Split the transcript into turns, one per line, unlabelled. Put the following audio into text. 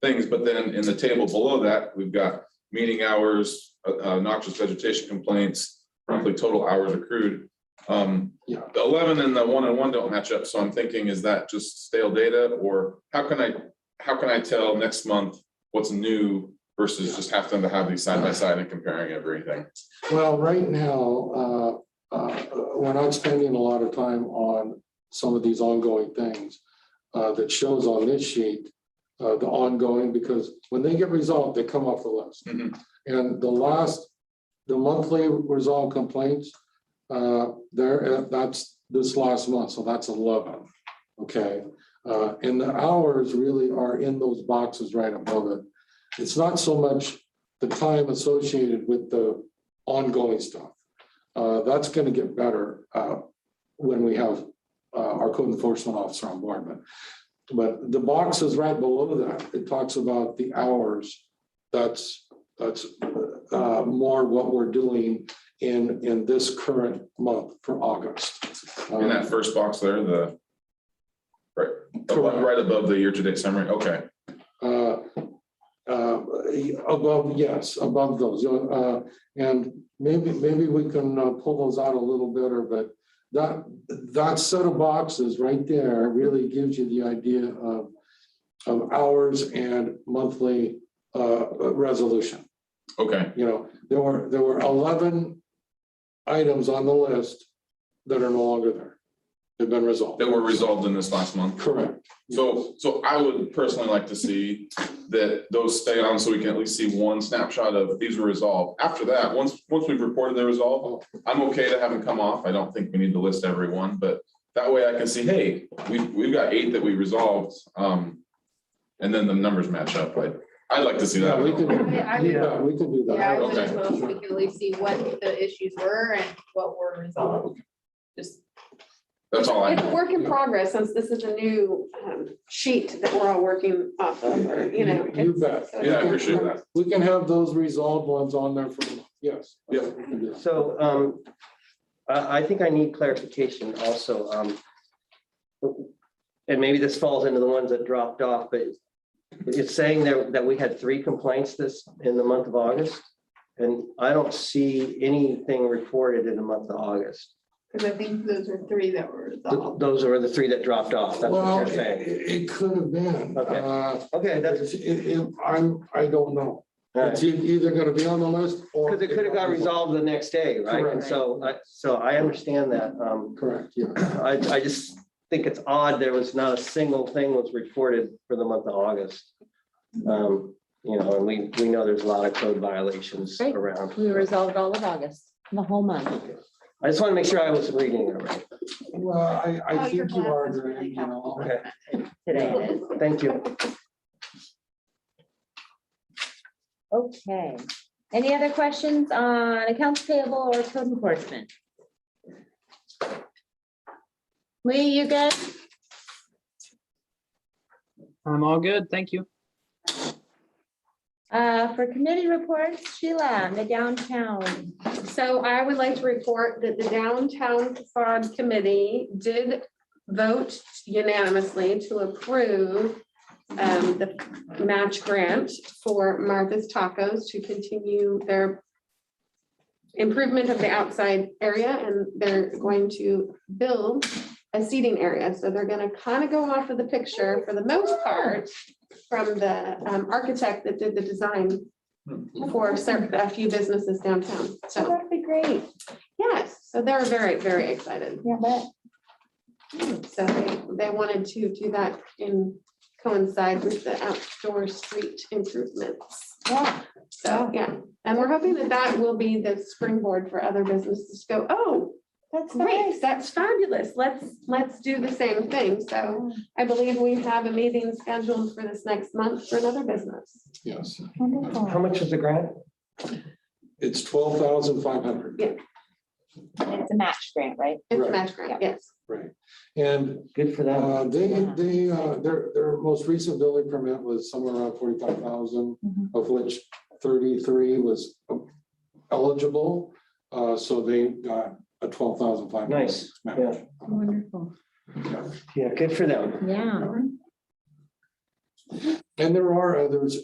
things, but then in the table below that, we've got meeting hours, uh, uh, noxious vegetation complaints, roughly total hours accrued. Um,
Yeah.
the eleven and the one and one don't match up, so I'm thinking, is that just stale data, or how can I, how can I tell next month what's new versus just have them to have these side by side and comparing everything?
Well, right now, uh, uh, we're not spending a lot of time on some of these ongoing things uh, that shows on this sheet, uh, the ongoing, because when they get resolved, they come off the list.
Mhm.
And the last, the monthly resolved complaints, uh, there, uh, that's this last month, so that's eleven. Okay, Uh, and the hours really are in those boxes right above it. It's not so much the time associated with the ongoing stuff. Uh, That's going to get better uh, when we have uh, our code enforcement officer on board. But, but the box is right below that. It talks about the hours. That's, that's uh, more what we're doing in, in this current month for August.
In that
Um,
first box there, the right, the one
Correct.
right above the year-to-date summary, okay,
uh, uh, Above, yes, above those. uh, And maybe, maybe we can uh, pull those out a little better, but that, that set of boxes right there really gives you the idea of, of hours and monthly uh, resolution.
okay,
You know, there were, there were 11 items on the list that are no longer there. They've been resolved.
that were resolved in this last month.
Correct.
So, so I would personally like to see that those stay on so we can at least see one snapshot of these were resolved. After that, once, once we've reported the resolve, I'm okay to have them come off. I don't think we need to list everyone, but that way I can see, hey, we've, we've got eight that we resolved. Um, and then the numbers match up, but I'd like to see
Yeah,
that.
we can,
I- I-
yeah, we can do that.
Yeah, I would as
Okay.
well, so we can at least see what the issues were and what were resolved. Just,
That's all I
it's
know.
a work in progress, since this is a new um, sheet that we're all working off of, or, you know.
You- you bet.
it's- so-
Yeah, I appreciate that.
We can have those resolved ones on there for, yes.
Yeah.
We can do that.
So um, I, I think I need clarification also. um, And maybe this falls into the ones that dropped off, but it's saying that, that we had three complaints this, in the month of August. And I don't see anything reported in the month of August.
Because I think those are three that were
Th-
resolved.
Those are the three that dropped off. That's what
Well,
you're
it,
saying.
it could have been.
Okay.
uh,
Okay, that's,
It, it, I'm, I don't know.
all right.
It's e- either gonna be on the list or.
because it could have got resolved the next day, right? And so, I- so I understand that. um,
Correct, yeah.
I, I just think it's odd, there was not a single thing was reported for the month of August. Um, You know, and we, we know there's a lot of code violations
Great.
around.
We resolved all of August, the whole month.
I just want to make sure I was reading it right.
Well, I,
Oh,
I
your
think you are,
glass is really
agreeing, you know.
Okay,
today.
thank you.
Okay. Any other questions on accounts payable or code enforcement? Lee, you good?
I'm all good, thank you.
Uh, for committee reports, Sheila, the downtown.
So I would like to report that the downtown facade committee did vote unanimously to approve um, the match grant for Martha's Tacos to continue their improvement of the outside area, and they're going to build a seating area. So they're gonna kind of go off of the picture for the most part from the um, architect that did the design for cer- a few businesses downtown. So,
That'd be great.
yes, so they're very, very excited.
Yeah, but
So they, they wanted to do that in coincide with the outdoor street improvements.
yeah,
So, yeah, and we're hoping that that will be the springboard for other businesses to go, oh,
that's nice.
great, that's fabulous. Let's, let's do the same thing. So I believe we have a meeting scheduled for this next month for another business.
Yes,
How
Wonderful.
much is the grant?
it's twelve thousand five hundred,
It's a match grant, right?
It's
Right.
a match grant, yes.
right? And
Good for them.
uh, they,
Yeah.
they, uh, their, their most recent building permit was somewhere around forty-five thousand.
Mhm.
of which thirty-three was eligible. Uh, so they got a twelve thousand five hundred.
Nice, yeah.
Wonderful.
Yeah, good for them.
Yeah.
And there are others